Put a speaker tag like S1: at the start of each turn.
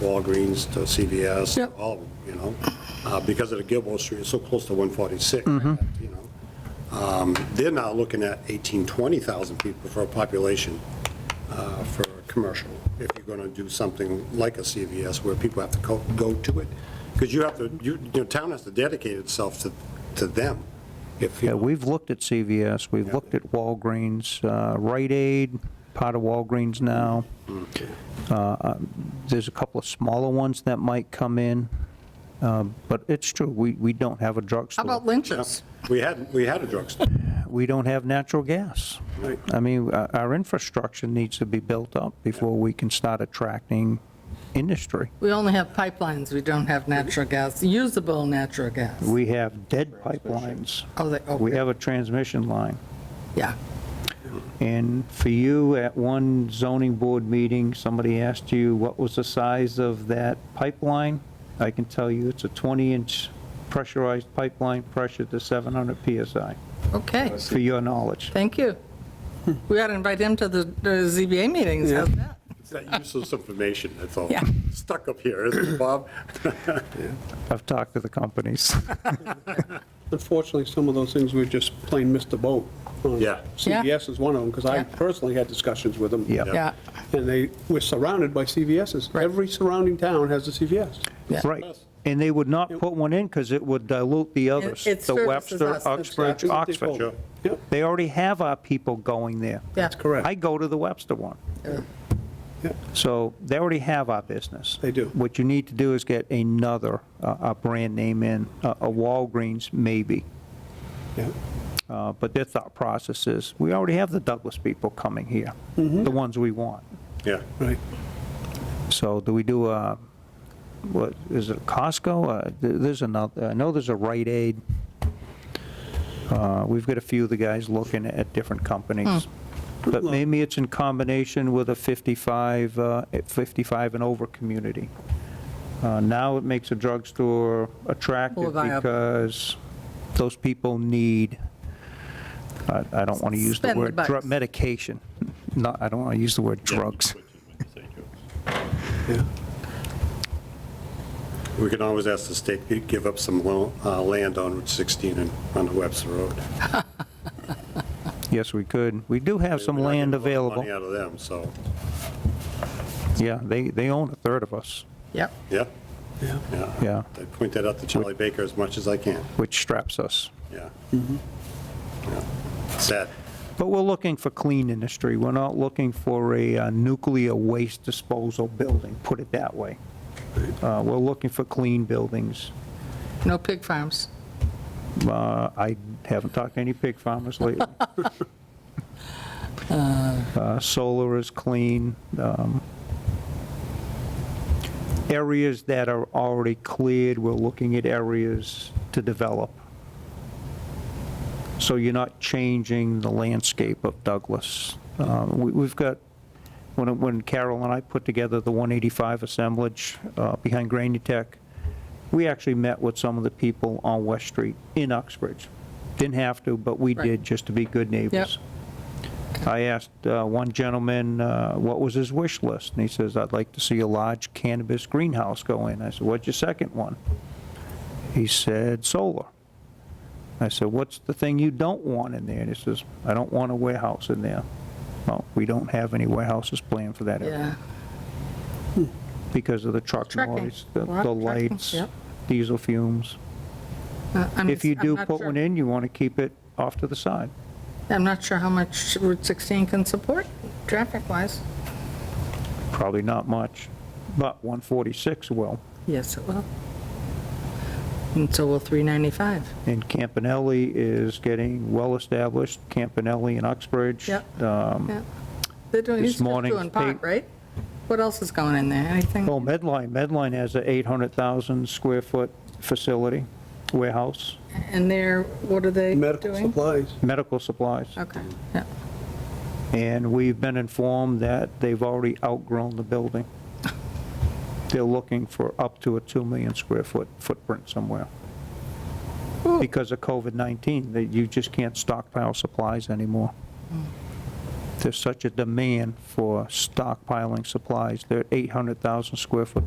S1: Walgreens to CVS, to
S2: Yep.
S1: all of them, you know? Uh, Because of the Gilboa Street, it's so close to 146,
S2: Mm-hmm.
S1: you know? Um, They're now looking at 18, 20,000 people for a population uh, for a commercial, if you're going to do something like a CVS where people have to co- go to it. Because you have to, you, your town has to dedicate itself to, to them. If,
S3: Yeah,
S1: you-
S3: we've looked at CVS, we've looked at Walgreens, uh, Rite Aid, part of Walgreens now. Uh, um, There's a couple of smaller ones that might come in, um, but it's true, we, we don't have a
S2: How about
S3: drugstore.
S2: lynches?
S1: we had, we had a drugstore.
S3: We don't have natural gas.
S1: Right.
S3: I mean, our our infrastructure needs to be built up before we can start attracting industry.
S2: We only have pipelines, we don't have natural gas, usable natural gas.
S3: We have dead pipelines.
S2: Oh, they- oh,
S3: We
S2: yeah.
S3: have a transmission line.
S2: Yeah,
S3: And for you, at one zoning board meeting, somebody asked you what was the size of that pipeline. I can tell you it's a 20-inch pressurized pipeline, pressure to 700 PSI,
S2: okay,
S3: for your knowledge.
S2: thank you. We ought to invite him to the the ZBA meetings, how's that?
S1: It's that useless information, that's all.
S2: Yeah.
S1: Stuck up here, isn't it, Bob?
S3: I've talked to the companies.
S4: Unfortunately, some of those things we just plain missed the boat. Uh, on.
S1: Yeah.
S4: CVS is one of them, because I
S2: Yeah.
S4: personally had discussions with them.
S3: Yeah.
S2: Yeah,
S4: And they, we're surrounded by CVSs.
S2: Right.
S4: Every surrounding town has a CVS.
S2: yeah.
S3: Right. And they would not put one in because it would dilute the others.
S2: it
S3: The
S2: services
S3: Webster,
S2: us.
S3: Oxbridge,
S4: Exactly what they told
S3: Oxford.
S4: me. Yep,
S3: They already have our people going there.
S2: That's
S4: correct.
S3: I go to the Webster one.
S4: Yeah.
S3: So they already have our business.
S4: They do.
S3: What you need to do is get another, uh, a brand name in, a a Walgreens maybe.
S4: yeah.
S3: Uh, But their thought process is, we already have the Douglas people coming here,
S4: Mm-hmm.
S3: the ones we want.
S1: Yeah.
S4: Right.
S3: So do we do a, what, is it Costco? Uh, th- There's another, I know there's a Rite Aid. Uh, We've got a few of the guys looking at different companies.
S2: Hmm.
S3: But maybe it's in combination with a 55, uh, 55 and over community. Uh, Now it makes a drugstore
S2: More
S3: attractive
S2: viable.
S3: because those people need, I I don't want to use the
S2: Spend the
S3: word, drug-
S2: bucks.
S3: medication. No, I don't want to use the word drugs.
S4: Yeah.
S1: We can always ask the state to give up some lo- uh, land on Route 16 and on the Webster Road.
S3: Yes, we could. We do have some land available.
S1: Money out of them, so,
S3: Yeah, they, they own a third of us,
S2: Yep,
S1: yeah,
S4: Yeah.
S1: yeah.
S3: yeah,
S1: I point that out to Charlie Baker as much as I can,
S3: which straps us.
S1: yeah.
S3: Mm-hmm.
S1: Yeah. Sad.
S3: But we're looking for clean industry. We're not looking for a uh, nuclear waste disposal building, put it that way. Uh, We're looking for clean buildings.
S2: no pig farms.
S3: Uh, I haven't talked to any pig farmers lately. Uh, Solar is clean. um, Areas that are already cleared, we're looking at areas to develop. So you're not changing the landscape of Douglas. Uh, we- We've got, when when Carol and I put together the 185 assemblage uh, behind Granny Tech, we actually met with some of the people on West Street in Uxbridge. Didn't have to, but we
S2: Right.
S3: did, just to be good neighbors. I asked uh, one gentleman, uh, what was his wish list? And he says, I'd like to see a large cannabis greenhouse go in. I said, what's your second one? He said, solar. I said, what's the thing you don't want in there? And he says, I don't want a warehouse in there. Well, we don't have any warehouses planned for that area
S2: Yeah,
S3: because of the truck
S2: Trucking.
S3: noise, the
S2: Lot of
S3: the
S2: trucking,
S3: lights,
S2: yep.
S3: diesel fumes.
S2: Uh, I'm-
S3: If you
S2: I'm
S3: do
S2: not
S3: put
S2: sure-
S3: one in, you want to keep it off to the side.
S2: I'm not sure how much Route 16 can support, traffic-wise.
S3: Probably not much, but 146 will.
S2: Yes, it will. And so will 395.
S3: And Campanelli is getting well-established, Campanelli and Uxbridge.
S2: Yep.
S3: Um,
S2: Yeah. They're doing,
S3: This
S2: he's just
S3: morning's
S2: doing pot,
S3: paper-
S2: right? What else is going in there? Anything?
S3: Oh, Medline, Medline has an 800,000 square foot facility, warehouse,
S2: And they're, what are they
S4: Medical
S2: doing?
S4: supplies.
S3: medical supplies.
S2: Okay, yeah,
S3: And we've been informed that they've already outgrown the building. They're looking for up to a 2 million square foot footprint somewhere. Because of COVID-19, that you just can't stockpile supplies anymore. There's such a demand for stockpiling supplies. They're 800,000 square foot